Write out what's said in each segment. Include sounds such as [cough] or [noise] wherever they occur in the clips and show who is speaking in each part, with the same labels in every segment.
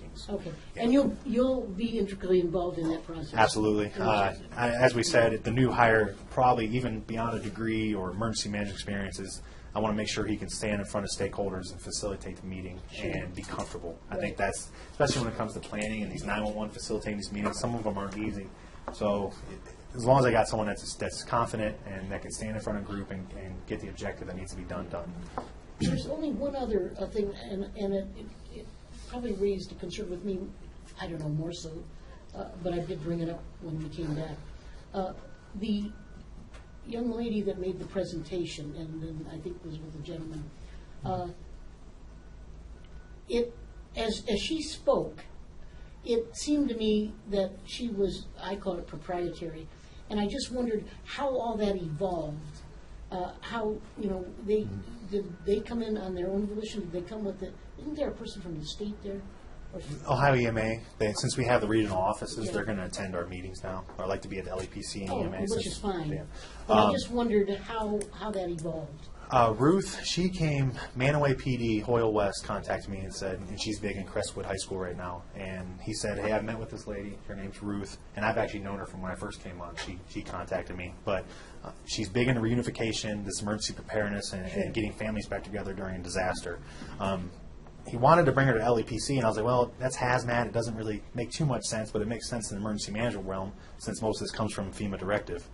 Speaker 1: yes.
Speaker 2: Okay, and you'll, you'll be intricately involved in that process?
Speaker 1: Absolutely.
Speaker 2: In the
Speaker 1: Uh,
Speaker 2: process.
Speaker 1: I- As we said, the new hire, probably even beyond a degree or emergency management experiences, I want to make sure he can stand in front of stakeholders and facilitate the meeting and be comfortable. I think that's, especially when it comes to planning and these 911 facilitating these meetings, some of them aren't easy. So it- as long as I got someone that's, that's confident and that can stand in front of a group and, and get the objective that needs to be done, done.
Speaker 2: There's only one other uh, thing, and, and it, it- it probably raised a concern with me, I don't know, more so, uh, but I did bring it up when we came back. Uh, The young lady that made the presentation, and then I think was with the gentleman, uh, it, as, as she spoke, it seemed to me that she was, I call it proprietary, and I just wondered how all that evolved. Uh, how, you know, they,
Speaker 1: Mm-hmm.
Speaker 2: did they come in on their own volition? Did they come with the, isn't there a person from the state there? Or-
Speaker 1: Ohio EMA, they, since we have the regional offices,
Speaker 2: Yeah.
Speaker 1: they're going to attend our meetings now. I'd like to be at the LEPC and
Speaker 2: Oh,
Speaker 1: EMA.
Speaker 2: which
Speaker 1: since-
Speaker 2: is fine.
Speaker 1: yeah.
Speaker 2: But I
Speaker 1: Um,
Speaker 2: just wondered how, how that evolved.
Speaker 1: Uh, Ruth, she came, Manaway PD, Hoyle West contacted me and said, and she's big in Crestwood High School right now. And he said, hey, I've met with this lady. Her name's Ruth. And I've actually known her from when I first came on. She, she contacted me. But uh, she's big into reunification, this emergency preparedness, and, and getting families back together during a disaster. Um, he wanted to bring her to LEPC, and I was like, well, that's hazmat. It doesn't really make too much sense, but it makes sense in the emergency management realm since most of this comes from FEMA directive.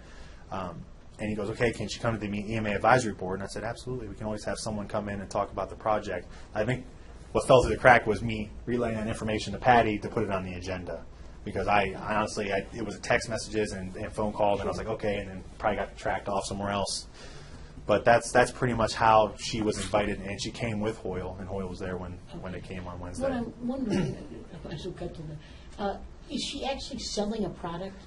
Speaker 1: Um, and he goes, okay, can she come to the EMA advisory board? And I said, absolutely. We can always have someone come in and talk about the project. I think what fell through the crack was me relaying that information to Patty to put it on the agenda. Because I, I honestly, I, it was text messages and, and phone calls, and I was like, okay, and then probably got tracked off somewhere else. But that's that's pretty much how she was invited, and she came with Hoyle, and Hoyle was there when when it came on Wednesday.
Speaker 2: What I'm wondering, [coughs] if I should cut to the, uh, is she actually selling a product?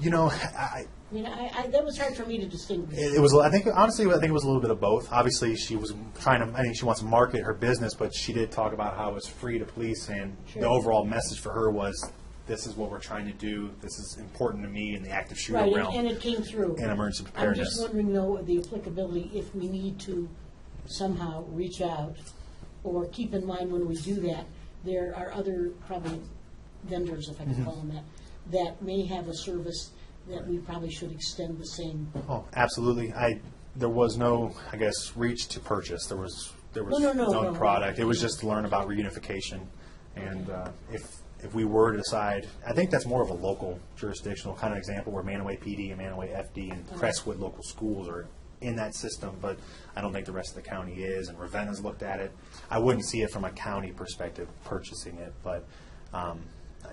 Speaker 1: you know, I,
Speaker 2: I mean, I, I, that was hard for me to distinguish.
Speaker 1: it it was. I think honestly, I think it was a little bit of both. Obviously, she was trying to. I think she wants to market her business, but she did talk about how it was free to police, and the
Speaker 2: Sure.
Speaker 1: overall message for her was, "This is what we're trying to do. This is important to me in the active shooter
Speaker 2: Right, and-
Speaker 1: realm."
Speaker 2: and it came through.
Speaker 1: and emergency
Speaker 2: I'm just
Speaker 1: preparedness.
Speaker 2: wondering though, the applicability, if we need to somehow reach out or keep in mind when we do that, there are other probably vendors, if I can call them that, that may have a service that we probably should extend the same.
Speaker 1: oh, absolutely. I there was no, I guess, reach to purchase. There was there was
Speaker 2: No, no, no, no.
Speaker 1: product. It was just to learn about reunification, and uh, if if we were to decide, I think that's more of a local jurisdictional kind of example where Manaway PD and Manaway FD
Speaker 2: Mm-hmm.
Speaker 1: and Crestwood local schools are in that system, but I don't think the rest of the county is. And Ravenna's looked at it. I wouldn't see it from a county perspective purchasing it, but. Um,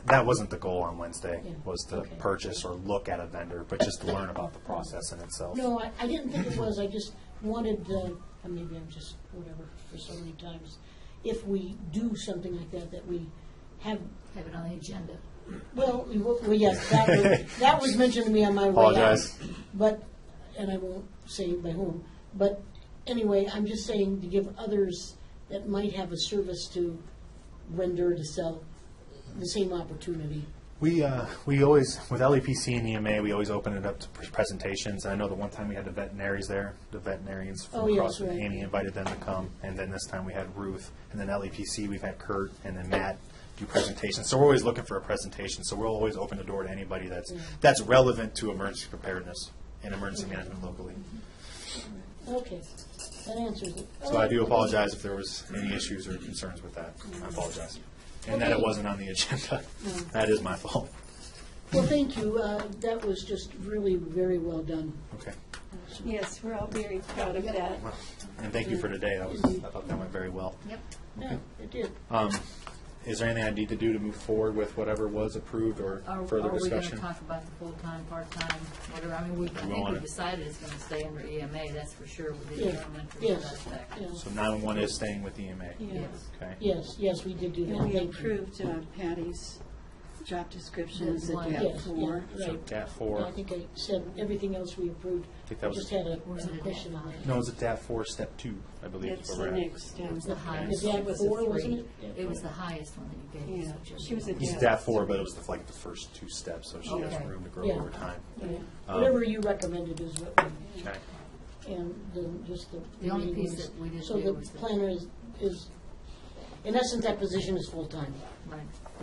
Speaker 1: that wasn't the goal on Wednesday.
Speaker 2: Yeah,
Speaker 1: Was to
Speaker 2: okay.
Speaker 1: purchase or look at a vendor, but just to learn about the process in itself.
Speaker 2: No, I, I didn't think it was, I just wanted, uh, and maybe I'm just, whatever, for so many times, if we do something like that, that we have,
Speaker 3: have it on the agenda.
Speaker 2: well, we wo- well, yes, that was, that was mentioned to me on my way out.
Speaker 1: Apologize.
Speaker 2: But, and I won't say by whom, but anyway, I'm just saying to give others that might have a service to render, to sell, the same opportunity.
Speaker 1: We, uh, we always, with LEPC and EMA, we always open it up to pres- presentations. I know the one time we had the veterinaries there, the veterinarians
Speaker 2: Oh,
Speaker 1: from
Speaker 2: yeah,
Speaker 1: across,
Speaker 2: that's right.
Speaker 1: Annie invited them to come. And then this time we had Ruth, and then LEPC, we've had Kurt, and then Matt do presentations. So we're always looking for a presentation, so we'll always open the door to anybody that's, that's relevant to emergency preparedness and emergency management locally.
Speaker 2: Okay, that answers it.
Speaker 1: So I do apologize if there was any issues or concerns with that. I apologize. And that it
Speaker 2: Okay.
Speaker 1: wasn't on the agenda. That is my fault.
Speaker 2: Well, thank you, Uh, that was just really very well done.
Speaker 1: Okay.
Speaker 4: Yes, we're all very proud of that.
Speaker 1: And thank you for today. That was, I thought that went very well.
Speaker 3: Yep.
Speaker 2: Yeah, it did.
Speaker 1: Um, Is there anything I need to do to move forward with whatever was approved or
Speaker 3: Are,
Speaker 1: further
Speaker 3: are we going to
Speaker 1: discussion?
Speaker 3: talk about the full-time, part-time, whatever? I mean, we, I think
Speaker 1: want
Speaker 3: we
Speaker 1: it.
Speaker 3: decided it's going to stay under EMA, that's for sure, with the
Speaker 2: Yeah,
Speaker 3: elementary
Speaker 2: yes,
Speaker 3: aspect.
Speaker 2: yeah.
Speaker 1: So 911 is staying with EMA?
Speaker 4: Yeah.
Speaker 3: Yes.
Speaker 1: Okay.
Speaker 2: yes, yes, we did do that.
Speaker 4: And we
Speaker 2: Thank you.
Speaker 4: approved uh, Patty's job description as a
Speaker 3: One.
Speaker 4: DAP
Speaker 2: Yes, yeah,
Speaker 4: four.
Speaker 1: So
Speaker 2: right.
Speaker 1: DAT
Speaker 2: I
Speaker 1: 4,
Speaker 2: think I said everything else we approved.
Speaker 1: think that
Speaker 2: I
Speaker 1: was-
Speaker 2: just had a
Speaker 3: Was it
Speaker 2: a
Speaker 3: a
Speaker 2: question on
Speaker 3: deadline?
Speaker 2: it.
Speaker 1: no, is it DAT 4, step 2, I believe? is
Speaker 4: It's
Speaker 1: where
Speaker 4: the
Speaker 1: we're at.
Speaker 4: next. uh,
Speaker 3: It was the highest,
Speaker 2: that
Speaker 3: it was a
Speaker 2: four, wasn't
Speaker 3: three.
Speaker 2: it?
Speaker 3: It was the highest one that you gave.
Speaker 4: Yeah.
Speaker 3: so just-
Speaker 4: She was a-
Speaker 1: It's
Speaker 4: Yeah.
Speaker 1: DAT 4, but it was the- like the first two steps, so she has
Speaker 3: Okay.
Speaker 1: room to grow
Speaker 2: Yeah.
Speaker 1: over time.
Speaker 4: yeah.
Speaker 1: Um,
Speaker 2: Whatever you recommended is what we,
Speaker 1: Okay.
Speaker 2: and then just the.
Speaker 3: The only
Speaker 2: meeting
Speaker 3: piece
Speaker 2: was-
Speaker 3: that we didn't
Speaker 2: So
Speaker 3: do
Speaker 2: the
Speaker 3: was the-
Speaker 2: planner is, is in essence, that position is full-time.
Speaker 3: Right.